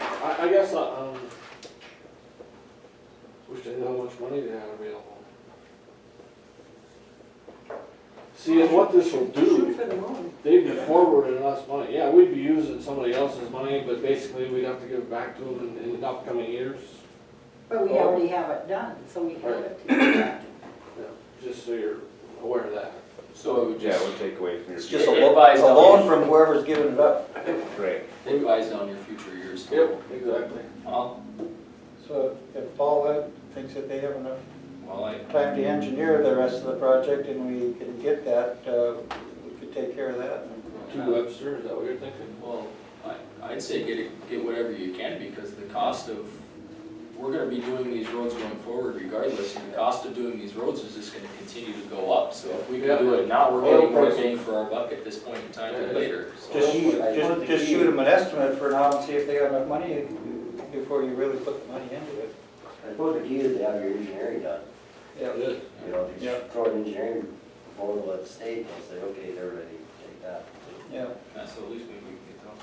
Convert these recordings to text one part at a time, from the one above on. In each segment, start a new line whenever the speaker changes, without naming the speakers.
I guess, I, um, wish they knew how much money they had available. See, and what this will
Shoot
do,
for the moon.
they'd be forwarding us money, yeah, we'd be using somebody else's money, but basically we'd have to give it back to them in, in the upcoming years.
But
Oh.
we already have it done, so we have it. to do that.
Yeah, Just so you're aware of that.
So it would
Yeah, it
just,
would take away from your.
it's just a
It
loan,
buys
a
down
loan
your-
from whoever's giving it up.
Right.
It buys down your future years.
exactly.
Well,
So if Paul Webb thinks that they have enough
well, I,
time to engineer the rest of the project and we can get that, uh, we could take care of that.
Two Webster, is that what you're thinking?
well, I, I'd say get it, get whatever you can, because the cost of, we're gonna be doing these roads going forward regardless, and the cost of doing these roads is just gonna continue to go up, so if we can do it now, we're getting more bang for our buck at this point in time than later,
Just
so.
shoot, just, just shoot them an estimate for now and see if they got enough money before you really put the money into it.
I suppose the key is to have your engineering done,
It is.
you know, if you
Yeah.
throw an engineering proposal at the state, they'll say, okay, they're ready, take that.
Yeah,
Yeah, so at least maybe we can get them.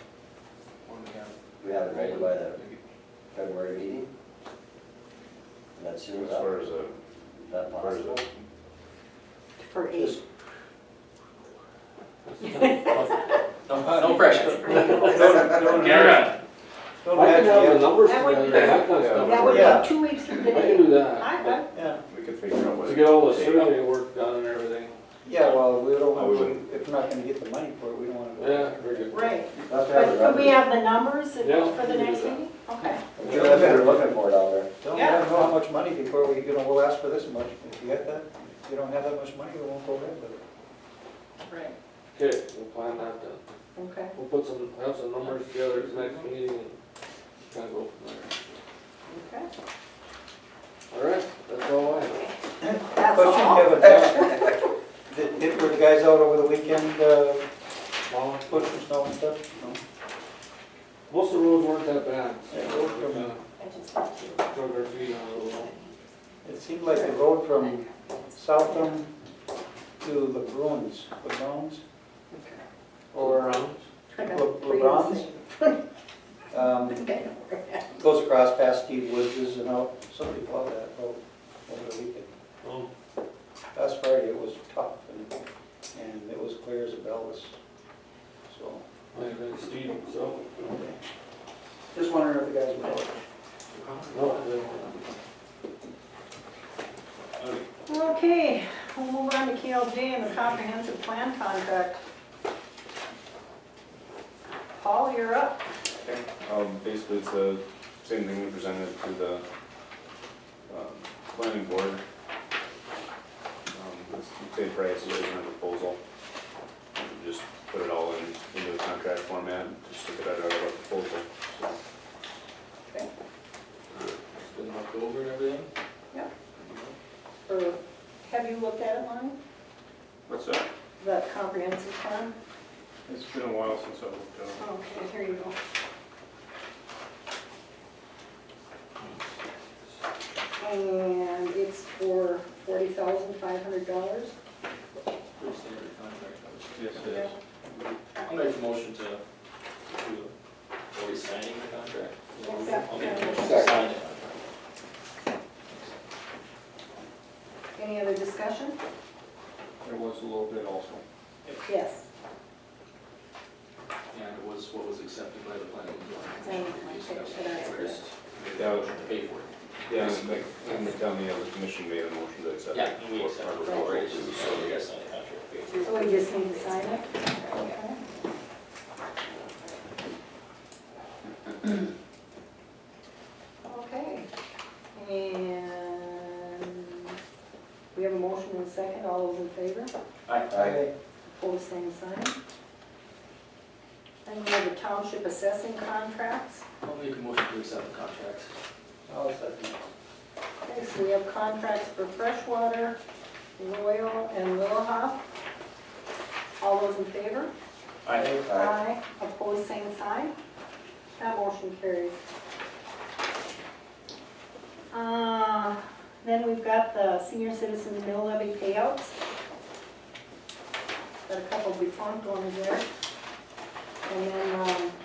When we have-
We have it ready by the
Maybe.
February meeting? And That's soon
As
as
far
that,
as uh, a,
that possible?
For eight.
No, no pressure.
Don't
I can have the
imagine,
numbers
That would
together,
be-
that kind of stuff.
That would
Yeah.
be two weeks from
I can
today.
do that.
I,
yeah,
we could figure out what.
To get all the
it would take.
survey work done and everything.
yeah, well, we don't,
I
want-
wouldn't.
if we're not gonna get the money for it, we don't wanna. go.
Yeah, very
I,
good.
right,
That's what
but could we
I'm,
have the numbers and-
Yeah,
for the
we can
next
do that.
meeting? Okay.
I'm sure that's what they're looking for down there.
Don't
Yeah.
have how much money before we, you know, we'll ask for this much, if you get that, if you don't have that much money, we won't go ahead with it.
Right,
Okay, we'll plan that then.
okay.
We'll put some, have some numbers together at the next meeting and kind of go from
Okay.
there. All right, that's all I have.
That's
Question,
all.
Kevin, uh, did, did- were the guys out over the weekend, uh,
Well,
pushing snow and stuff?
Most of the roads weren't that bad.
Yeah, we're
so we
from-
kinda
I just want to-
Drug our feet on it a little.
It seemed like the road from Southam to the Bruins, the Browns, or,
I got
Le-
three
LeBron's?
to say.
um,
Okay.
goes across past Steve Woods' and out, somebody plowed that road over the weekend.
Oh,
Last Friday, it was tough, and, and it was clear as a bell this, so.
I think Steve, so.
Just wondering if the guys were out.
No, they-
Okay, we'll move on to KLJ and the comprehensive plan contract. Paul, you're up.
Um, basically, it's the same thing we presented to the, um, planning board. Um, it's the Same price, it isn't a proposal. We Just put it all in, into a contract format, and just look at it out of a proposal, so.
Been knocked over and everything?
Or have you looked at it, Lonnie?
What's that?
The comprehensive plan? Oh,
It's been a while since I looked at it.
Okay, here you go. And it's for forty thousand five hundred dollars?
Pretty standard contract.
Yes, it
Yeah.
is.
I'll make a motion to, to, are we signing the contract?
Accept.
I'll make a motion to sign it.
Any other discussion?
There was a little bit also.
Yes.
And it was what was accepted by the planning
Sign
board.
my picture that I
First,
Yeah.
motion to pay for it.
Yeah, and like, and they tell me how the commission made a motion to accept.
Yeah, and we
our
accept it.
proposal,
Right,
so-
so we gotta sign the contract. pay for it.
So we just need to sign it? Okay. Okay, and we have a motion and a second, all those in favor?
Aye.
Hold the same sign. And we have the township assessing contracts.
I'll make a motion to accept the contract.
I'll second.
Okay, so we have contracts for freshwater, Royal, and Lilhoff. All those in favor?
Aye.
Aye.
Opposed, same sign. That motion carries. Uh, Then we've got the senior citizen mill levy payouts. Got a couple defunct ones there. And then um,